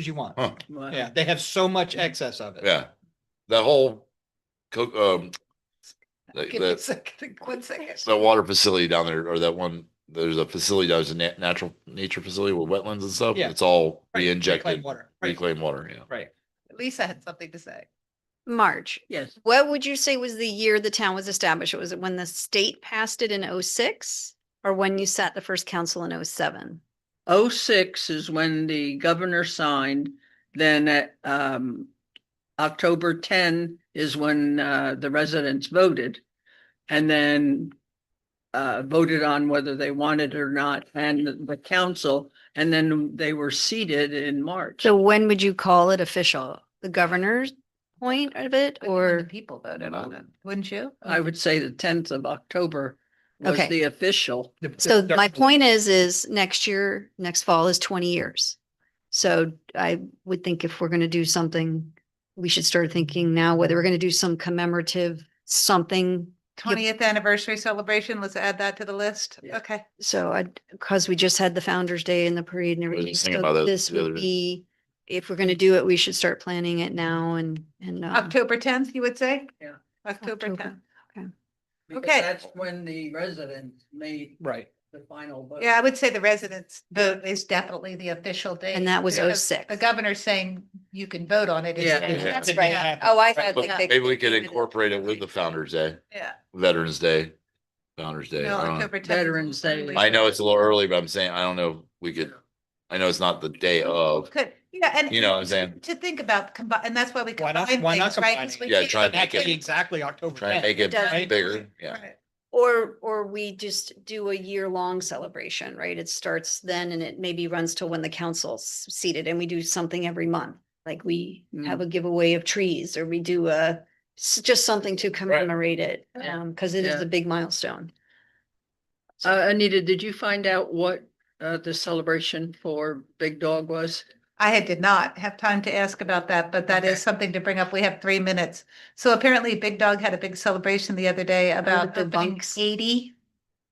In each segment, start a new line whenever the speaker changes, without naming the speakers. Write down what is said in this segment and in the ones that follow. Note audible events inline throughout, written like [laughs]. as you want.
Huh,
Yeah, they have so much excess of it.
yeah. That whole co- um, that,
Give me a
that,
second, [laughs] one second.
that water facility down there or that one, there's a facility, that was a nat- natural nature facility with wetlands and stuff.
Yeah.
It's all
Right, reclaimed
re-injected,
Water, right,
reclaimed water, yeah.
right.
Lisa had something to say.
March.
Yes.
What would you say was the year the town was established? Was it when the state passed it in oh-six? Or when you sat the first council in oh-seven?
Oh six is when the governor signed, then at um. October ten is when uh the residents voted. And then. Uh, voted on whether they wanted or not and the- the council, and then they were seated in March.
So when would you call it official? The governor's point of it
But when the
or?
People voted
Wow.
on it, wouldn't you?
I would say the tenth of October was
Okay.
the official.
The-
So
the-
my point is, is next year, next fall is twenty years. So I would think if we're going to do something, we should start thinking now whether we're going to do some commemorative something
Twentieth anniversary celebration, let's add that to the list.
Yeah.
Okay.
So I, because we just had the Founder's Day and the parade and
was
everything,
just thinking about
so
that
this
the other
would
day.
be, if we're gonna do it, we should start planning it now and, and. uh,
October tenth, you would say?
Yeah.
October
October.
tenth.
because
Okay.
That's when the residents made
Right.
the final vote.
Yeah, I would say the residents vote is definitely the official date.
And that was
because
06.
The governor saying you can vote on it. is-
Yeah.
Yeah. That's
Didn't
right.
happen.
Oh, I
But
had.
Yeah.
Maybe we could incorporate it with the Founder's Day,
Yeah.
Veterans Day, Founder's Day.
No,
I don't know.
October 10th is
Veterans Day.
really-
I know it's a little early, but I'm saying, I don't know, if we could, I know it's not the day of,
Could, yeah, and.
you know what I'm saying?
To think about, combi- and that's why we
Why
combine
not-
things,
why not
right?
combine
'Cause
it?
we
Yeah,
can't-
try and
That
make
could be
it,
exactly October
try and
tenth.
make it
Doesn't-
bigger, yeah.
Right.
Or, or we just do a year-long celebration, right? It starts then and it maybe runs till when the council's seated and we do something every month. Like we have a giveaway of trees or we do a, s- just something to commemorate it,
Yeah.
um, cause it is
Yeah.
a big milestone. So-
Uh, Anita, did you find out what, uh, the celebration for Big Dog was?
I had did not have time to ask about that, but that
Okay.
is something to bring up. We have three minutes. So apparently Big Dog had a big celebration the other day about
the
opening
bunks.
eighty.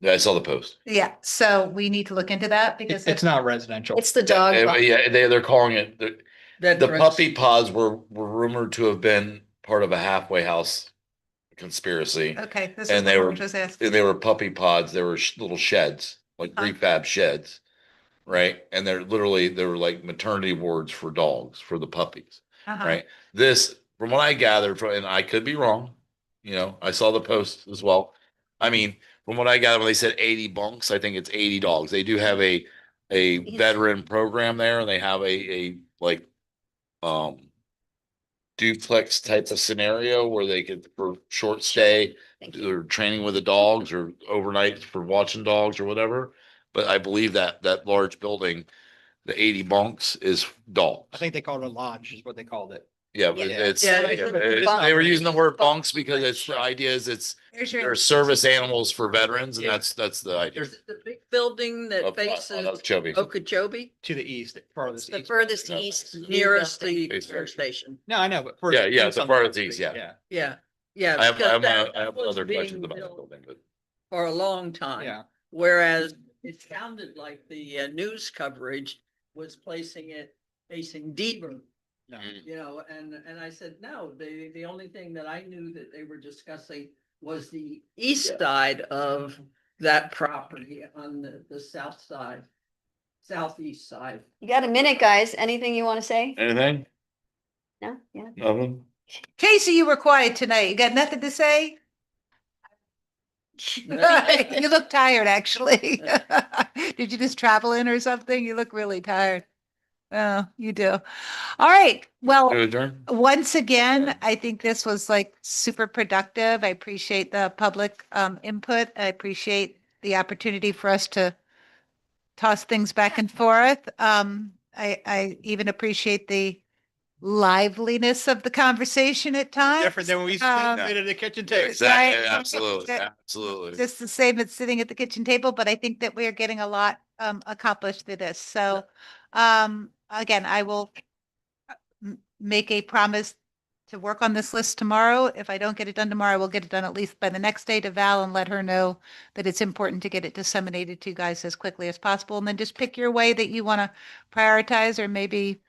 Yeah, I saw the post.
Yeah, so we need to look into that because
It's,
it's
[laughs] it's not residential.
It's the dog.
Yeah,
walk.
Yeah, they, they're calling it, the-
That
The
dress-
puppy pods were, were rumored to have been part of a halfway house conspiracy.
okay, this
And
is
they
what
were-
George was asking.
And they were puppy pods. They were sh- little sheds, like
Huh.
refab sheds. Right? And they're literally, they were like maternity wards for dogs, for the puppies,
Uh-huh.
right? This, from what I gathered from, and I could be wrong, you know, I saw the post as well. I mean, from what I gathered, when they said eighty bunks, I think it's eighty dogs. They do have a, a
Yes.
veteran program there and they have a, a like, um, duplex type of scenario where they could for short stay
Thank you.
or training with the dogs or overnight for watching dogs or whatever. But I believe that that large building, the eighty bunks is dogs.
I think they called it a lodge is what they called it.
Yeah, but
Yeah.
it's,
Yeah,
yeah,
it's
like
it-
bunks.
they were using the word bunks because it's, the idea is it's,
There's your-
they're service animals for veterans and
Yeah.
that's, that's the idea.
Is it The big building that
of- uh,
faces
of Chubby.
Okeechobee,
To the east, farthest
The
east.
furthest
Okay.
east. is
nearest the
Basically.
air station.
No, I know, but.
Yeah,
furthest
yeah,
east
the
on
farthest
street,
east, yeah.
Yeah, yeah.
I have, I
because
have,
that-
I have
that was
other questions
being
about that
built
building, but.
For a long
Yeah,
time,
yeah.
whereas it sounded like the uh, news coverage was placing it facing Deaver.
no.
You know, and, and I said, no, the, the only thing that I knew that they were discussing was the east side of that property on the, the south side, southeast side.
You got a minute, guys. Anything you want to say?
Anything?
No? Yeah.
Nothing?
Casey, you were quiet tonight. You got nothing to say? You look tired, actually. [laughs] Did you just travel in or something? You look really tired. Oh, you do. All right. Well,
To adjourn?
Once again, I think this was like super productive. I appreciate the public um input. I appreciate the opportunity for us to toss things back and forth. Um, I I even appreciate the liveliness of the conversation at times.
Different than when we
Um,
sit at the kitchen table.
Exactly,
Right.
absolutely,
That-
absolutely.
Just the same as sitting at the kitchen table, but I think that we are getting a lot um accomplished through this. So um again, I will uh, m- make a promise to work on this list tomorrow. If I don't get it done tomorrow, I will get it done at least by the next day to Val and let her know that it's important to get it disseminated to you guys as quickly as possible. And then just pick your way that you want to prioritize or maybe